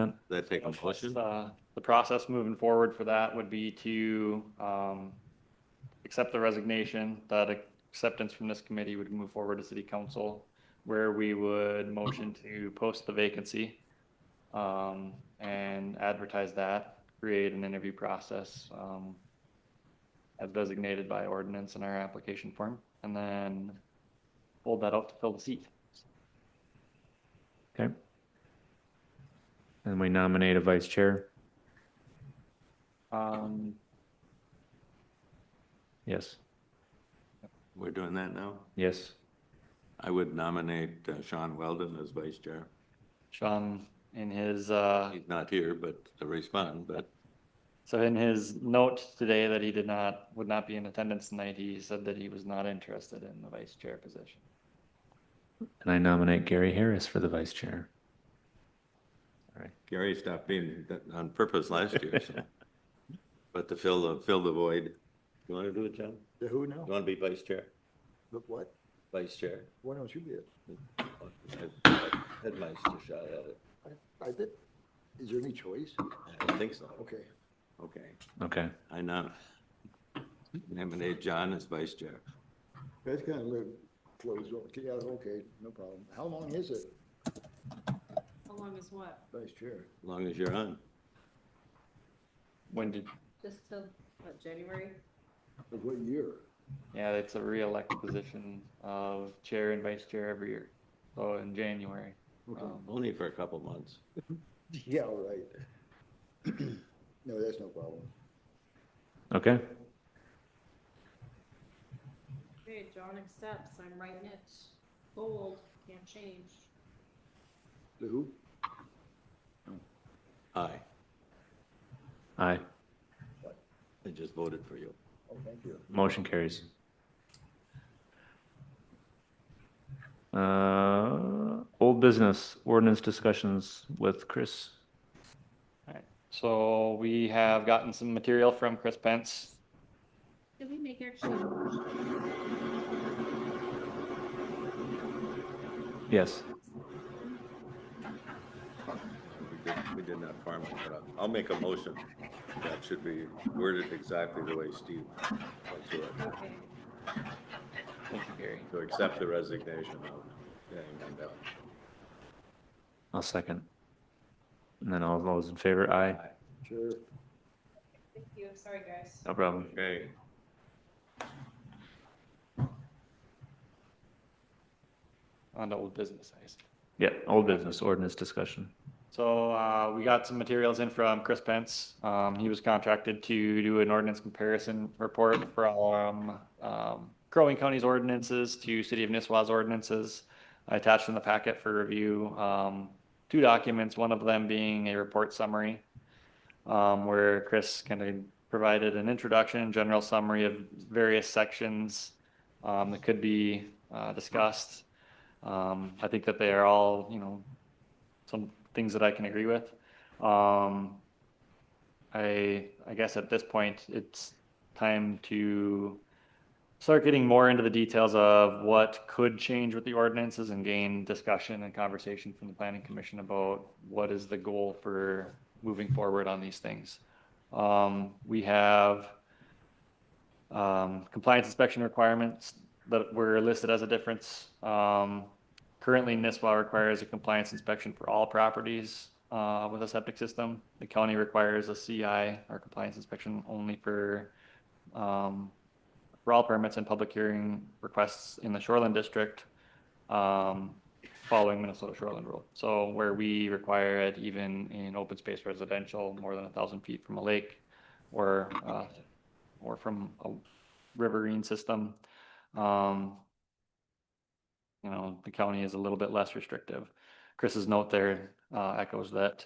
that? Does that take a motion? Uh, The process moving forward for that would be to um, accept the resignation, that acceptance from this committee would move forward to city council, where we would motion to post the vacancy um, and advertise that, create an interview process um, as designated by ordinance in our application form, and then hold that out to fill the seat. Okay. And we nominate a vice chair. Um, Yes, We're doing that now? yes. I would nominate uh, Sean Weldon as vice chair. Sean, in his uh, He's not here, but to respond, but So in his note today that he did not, would not be in attendance tonight, he said that he was not interested in the vice chair position. And I nominate Gary Harris for the vice chair. All right. Gary stopped being that on purpose last year, so. But to fill the, fill the void. You want to do it, John? The who You now? want to be vice chair? The what? Vice chair? Why don't you be it? Headmaster shot at it. I, I think, is there any choice? I don't think so. Okay. Okay. Okay, I nom- nominate John as vice chair. That's kind of a closed, door. yeah, okay, no problem. How long is it, How long is what? Vice Chair? As long as you're on. When did, Just till, what, January? Of what year? yeah, it's a reelect position of chair and vice chair every year. So in January. Okay. um, Only for a couple months. Yeah, all right. No, that's no problem. okay. Okay, John accepts, I'm writing it bold, can't change. The who? Aye. Aye. I just voted for you. Oh, thank you. Motion carries. Uh, old business ordinance discussions with Chris. alright. So we have gotten some material from Chris Pence. Did we make actually? a motion? Yes. We did- We did not farm it, but I'll- I'll make a motion. That should be worded exactly the way Steve went through it, Okay, Thank you, Gary. to accept the resignation of Danny Mandel. I'll second. And then all those in favor, aye. Sure. thank you, sorry, guys. No problem. Okay. On to old business, I see. Yeah, old business ordinance discussion. So uh, we got some materials in from Chris Pence. Um, He was contracted to do an ordinance comparison report from um, Crow Wing County's ordinances to City of Nisswa's ordinances. I attached in the packet for review, um, two documents, one of them being a report summary um, where Chris kind of provided an introduction, general summary of various sections um, that could be uh, discussed. Um, I think that they are all, you know, some things that I can agree with. Um, I I guess at this point it's time to start getting more into the details of what could change with the ordinances and gain discussion and conversation from the planning commission about what is the goal for moving forward on these things. Um, we have um, compliance inspection requirements that were listed as a difference. Um, Currently, NISWA requires a compliance inspection for all properties uh, with a septic system. The county requires a CI or compliance inspection only for, um, for all permits and public hearing requests in the shoreline district, um, following Minnesota shoreline rule. So where we require it even in open space residential, more than a thousand feet from a lake or, uh, or from a riverine system. Um, you know, the county is a little bit less restrictive. Chris's note there uh, echoes that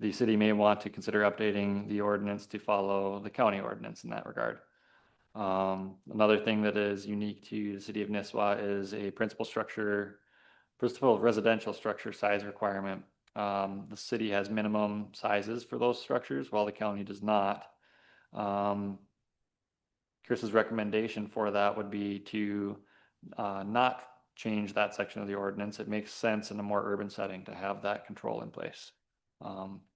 the city may want to consider updating the ordinance to follow the county ordinance in that regard. Um, Another thing that is unique to the city of Nisswa is a principal structure, principal residential structure size requirement. Um, The city has minimum sizes for those structures while the county does not. Um, Chris's recommendation for that would be to uh, not change that section of the ordinance. It makes sense in a more urban setting to have that control in place. Um,